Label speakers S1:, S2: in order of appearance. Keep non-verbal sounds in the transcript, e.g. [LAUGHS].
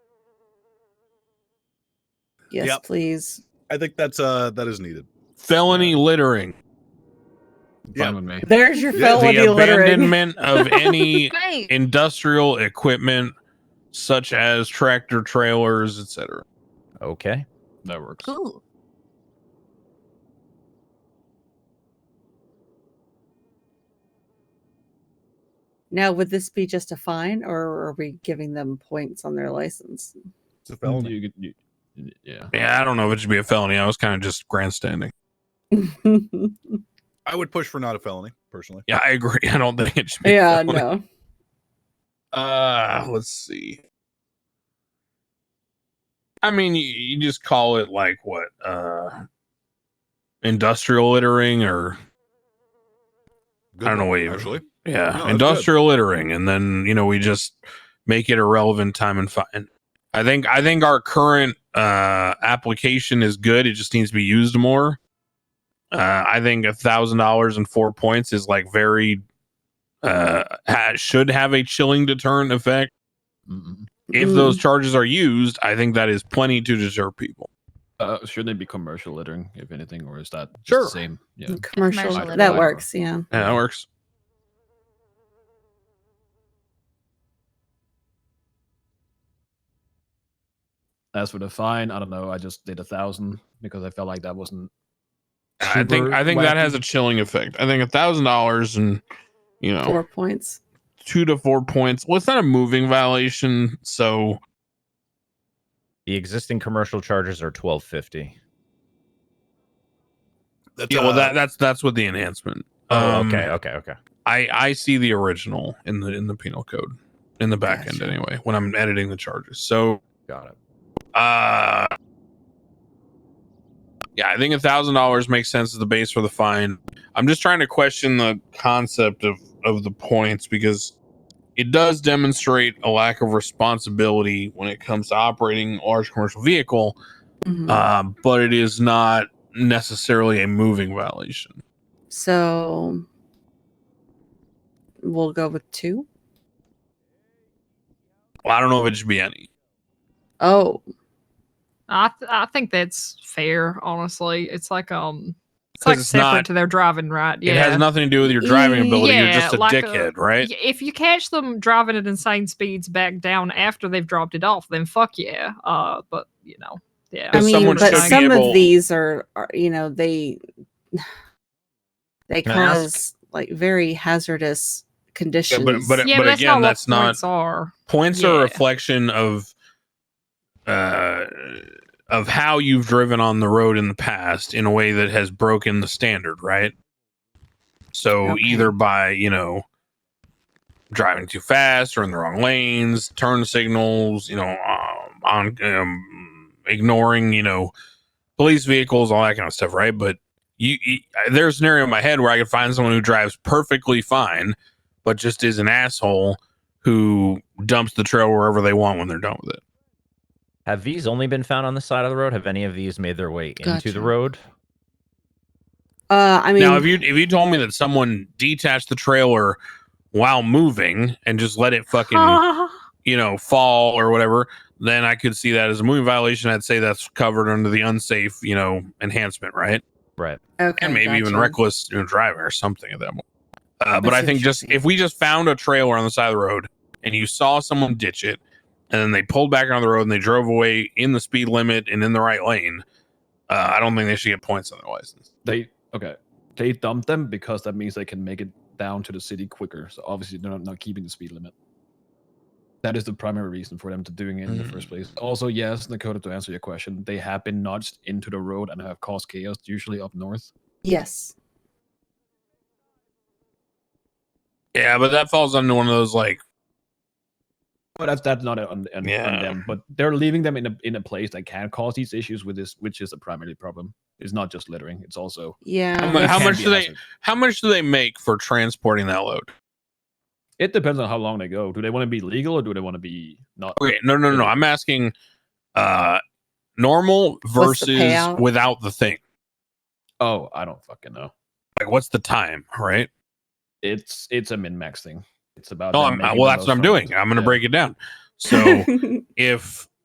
S1: Yes,
S2: Yep.
S1: please.
S2: I think that's uh that is needed.
S3: Felony littering.
S2: Yeah.
S4: Fine with me.
S1: There's your
S2: Yeah,
S1: felony
S3: the
S1: littering. [LAUGHS]
S3: abandonment of any
S5: Right.
S3: industrial equipment such as tractor trailers, etc.
S4: Okay,
S3: That works.
S5: Cool.
S1: Now, would this be just a fine, or are we giving them points on their [LAUGHS] license?
S2: It's a felony.
S4: you, could- you, yeah.
S3: Yeah, I don't know if it should be a felony. I was kind of just grandstanding.
S2: I would push for not a felony personally.
S3: Yeah, I agree. [LAUGHS] I don't think it should be. a
S1: yeah,
S3: felony.
S1: no.
S3: Uh, let's see. I mean, you, you just call it like what? Uh, industrial littering or
S2: Good
S3: I don't know
S2: one,
S3: what you-
S2: actually.
S3: Yeah,
S2: No, that's
S3: industrial littering, and then you know we just make it irrelevant time and fine. I think I think our current uh, application is good. It just needs to be used more. Uh, I think a thousand dollars and four points is like very uh, ha- should have a chilling deterrent effect.
S4: Mm-mm.
S3: If
S1: Mm.
S3: those charges are used, I think that is plenty to deter people.
S4: Uh, should they be commercial littering, if anything, or is that just
S3: Sure.
S4: the same? Yeah.
S1: Mm, commercial,
S5: Commercial
S1: that
S5: littering.
S1: works. Yeah.
S3: Yeah, that works.
S4: As for the fine, I don't know. I just did a thousand because I felt like that wasn't.
S3: I think
S4: super
S3: I think that
S4: wacky.
S3: has a chilling effect. I think a thousand dollars and you know
S1: Four points.
S3: two to four points. Well, it's not a moving violation, so
S6: The existing commercial charges are twelve fifty.
S2: That's,
S3: yeah. Well,
S2: uh,
S3: that that's that's what the enhancement.
S6: Oh,
S3: Um,
S6: okay, okay, okay.
S3: I I see the original in the in the penal code in the back end anyway when I'm editing the charges. So
S6: Got it.
S3: uh, yeah, I think a thousand dollars makes sense as the base for the fine. I'm just trying to question the concept of of the points because it does demonstrate a lack of responsibility when it comes to operating a large commercial vehicle.
S1: Mhm.
S3: um, but it is not necessarily a moving violation.
S1: so we'll go with two.
S3: Well, I don't know if it should be any.
S1: Oh,
S7: I th- I think that's fair. Honestly, it's like um, it's
S3: 'Cause
S7: like
S3: it's
S7: separate
S3: not-
S7: to their driving, right? Yeah.
S3: It has nothing to do with your driving ability.
S7: Yeah,
S3: You're just a
S7: like a-
S3: dickhead, right?
S7: Y- If you catch them driving at insane speeds back down after they've dropped it off, then fuck yeah. Uh, but you know, yeah.
S1: I
S3: Because
S1: mean,
S3: someone
S1: but
S3: should be
S1: some
S3: able-
S1: of these are, are, you know, they [SIGHS] they
S3: Can I ask?
S1: cause like very hazardous conditions.
S3: but-
S7: yeah, that's
S3: again,
S7: not what
S3: that's not-
S7: points are.
S3: Points are a
S7: Yeah.
S3: reflection of uh of how you've driven on the road in the past in a way that has broken the standard, right? So
S1: Okay.
S3: either by, you know, driving too fast or in the wrong lanes, turn signals, you know, um, on um, ignoring, you know, police vehicles, all that kind of stuff, right? But you, you there's a scenario in my head where I could find someone who drives perfectly fine, but just is an asshole who dumps the trail wherever they want when they're done with it.
S6: Have these only been found on the side of the road? Have any of these made their way into
S1: Gotcha.
S6: the road?
S1: uh, I mean,
S3: now, if you if you told me that someone detached the trailer while moving and just let it fucking you know fall or whatever, then I could see that as a moving violation. I'd say that's covered under the unsafe you know enhancement, right?
S6: Right.
S1: okay,
S3: and maybe even
S1: gotcha.
S3: reckless you know, driving or something at that moment. Uh, but
S1: That's
S3: I think just
S1: interesting.
S3: if we just found a trailer on the side of the road and you saw someone ditch it and then they pulled back on the road and they drove away in the speed limit and in the right lane, uh, I don't think they should get points on their license.
S4: They okay. They dumped them because that means they can make it down to the city quicker. So obviously they're not, not keeping the speed limit. That is the primary reason for them to doing it in the first place. Also, yes, Dakota, to answer your question, they have been nudged into the road and have caused chaos, usually up north.
S1: Yes.
S3: Yeah, but that falls under one of those like
S4: But that's that's not on, on,
S3: Yeah.
S4: on them. But they're leaving them in a in a place that can cause these issues with this, which is the primary problem. It's not just littering; it's also
S1: Yeah.
S3: How mu-
S4: it
S3: how
S4: can
S3: much
S4: be
S3: do
S4: a
S3: they-
S4: hazard.
S3: how much do they make for transporting that load?
S4: It depends on how long they go. Do they want to be legal or do they want to be not?
S3: Okay, no, no, no, no. I'm asking uh normal
S1: What's the
S3: versus
S1: payout?
S3: without the thing.
S4: Oh, I don't fucking know.
S3: Like what's the time, right?
S4: It's it's a min max thing. It's about.
S3: No,
S4: them
S3: I'm,
S4: making
S3: well,
S4: the
S3: that's
S4: most
S3: what I'm
S4: [LAUGHS] from it.
S3: doing. I'm going to
S4: Yeah.
S3: break it down. So if